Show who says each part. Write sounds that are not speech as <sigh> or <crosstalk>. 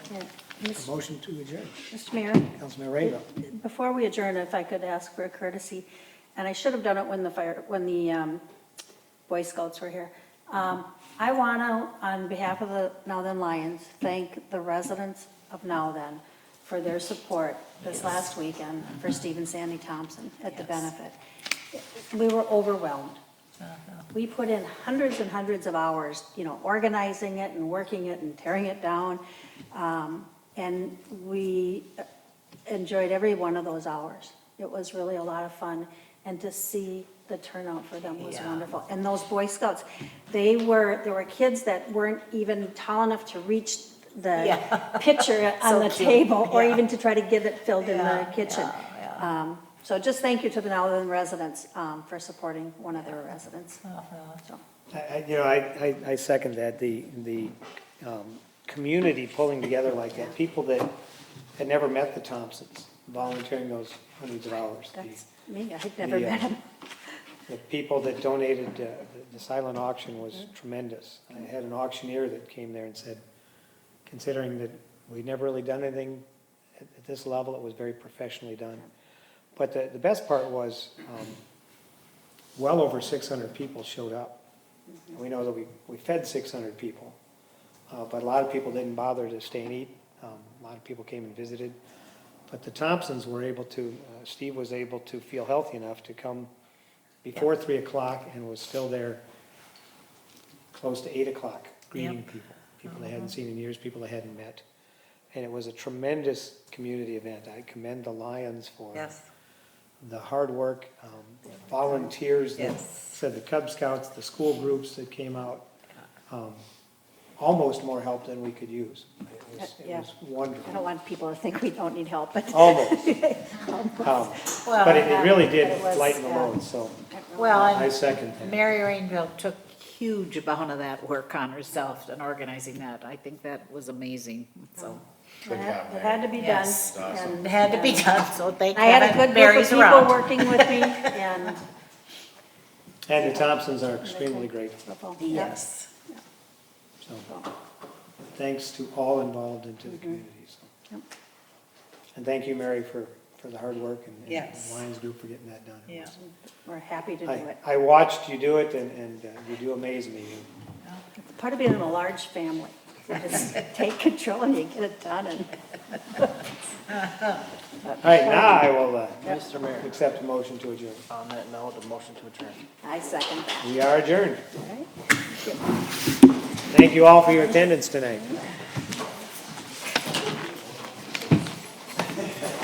Speaker 1: Yeah.
Speaker 2: A
Speaker 1: Mis-
Speaker 2: motion to adjourn.
Speaker 1: Mr. Mayor,
Speaker 2: Councilman Rainville.
Speaker 1: before we adjourn, if I could ask for a courtesy, and I should have done it when the fire, when the um, Boy Scouts were here. Um, I want to, on behalf of the Now Then Lions, thank the residents of Now Then for their support this last weekend for Steve and Sandy Thompson at the benefit. We were overwhelmed. We put in hundreds and hundreds of hours, you know, organizing it and working it and tearing it down. Um, And we enjoyed every one of those hours. It was really a lot of fun, and to see the turnout for them was
Speaker 3: Yeah.
Speaker 1: wonderful. And those Boy Scouts, they were, there were kids that weren't even tall enough to reach <laughs> the
Speaker 3: Yeah.
Speaker 1: pitcher on
Speaker 3: <laughs> So
Speaker 1: the
Speaker 3: cute.
Speaker 1: table, or
Speaker 3: Yeah.
Speaker 1: even to try to get it filled in the
Speaker 3: Yeah,
Speaker 1: kitchen.
Speaker 3: yeah,
Speaker 1: Um, So just thank you to the Nowland residents um, for supporting one of their residents.
Speaker 3: Uh-huh.
Speaker 1: So,
Speaker 2: I- I, you know, I, I, I second that, the, the, um, community pulling together like that, people that had never met the Thompsons, volunteering those hundreds of hours. The-
Speaker 1: That's me, I've never
Speaker 2: the, uh,
Speaker 1: met him.
Speaker 2: The people that donated, uh, the- the silent auction was tremendous. I had an auctioneer that came there and said, considering that we'd never really done anything at at this level, it was very professionally done. But the, the best part was, um, well over six hundred people showed up. We know that we, we fed six hundred people, uh, but a lot of people didn't bother to stay and eat. Um, a lot of people came and visited. But the Thompsons were able to, uh, Steve was able to feel healthy enough to come before three o'clock and was still there close to eight o'clock, greeting people, people they hadn't seen in years, people they hadn't met. And it was a tremendous community event. I commend the Lions for
Speaker 3: Yes,
Speaker 2: the hard work, um, volunteers that
Speaker 3: Yes.
Speaker 2: said the Cub Scouts, the school groups that came out, um, almost more help than we could use. It was, it
Speaker 1: Yeah.
Speaker 2: was
Speaker 1: I don't
Speaker 2: wonderful,
Speaker 1: want people to think we don't need help,
Speaker 3: Oh.
Speaker 1: but.
Speaker 2: almost. Um,
Speaker 3: Well,
Speaker 2: But it it really did
Speaker 1: but it was,
Speaker 2: lighten the
Speaker 1: yeah.
Speaker 2: load, so
Speaker 3: well,
Speaker 2: I
Speaker 3: and
Speaker 2: second that.
Speaker 3: Mary Rainville took huge amount of that work on herself and organizing that. I think that was amazing, so.
Speaker 1: It had- it had to be done.
Speaker 3: Yes.
Speaker 1: and-
Speaker 3: It had to be done, so thank
Speaker 1: I had a good
Speaker 3: heaven
Speaker 1: group of
Speaker 3: Mary's
Speaker 1: people
Speaker 3: around.
Speaker 1: working with
Speaker 3: <laughs>
Speaker 1: me, and.
Speaker 2: And the Thompsons are extremely grateful,
Speaker 3: Yes.
Speaker 2: so thanks to all involved and to the community, so.
Speaker 1: Mm-hmm. Yep.
Speaker 2: And thank you, Mary, for, for the hard work and- and
Speaker 3: Yes.
Speaker 2: the Lions Group for getting that done.
Speaker 3: Yeah.
Speaker 1: We're happy to do
Speaker 2: I,
Speaker 1: it.
Speaker 2: I watched you do it, and, and uh, you do amaze me.
Speaker 1: It's Part of being in a large family, you just <laughs> take control and you get it done, and
Speaker 2: All right, now I will uh, accept a motion to adjourn.
Speaker 4: On that note, a motion to adjourn.
Speaker 1: I second that,
Speaker 2: We are adjourned.
Speaker 1: all right?
Speaker 2: Thank you all for your attendance tonight.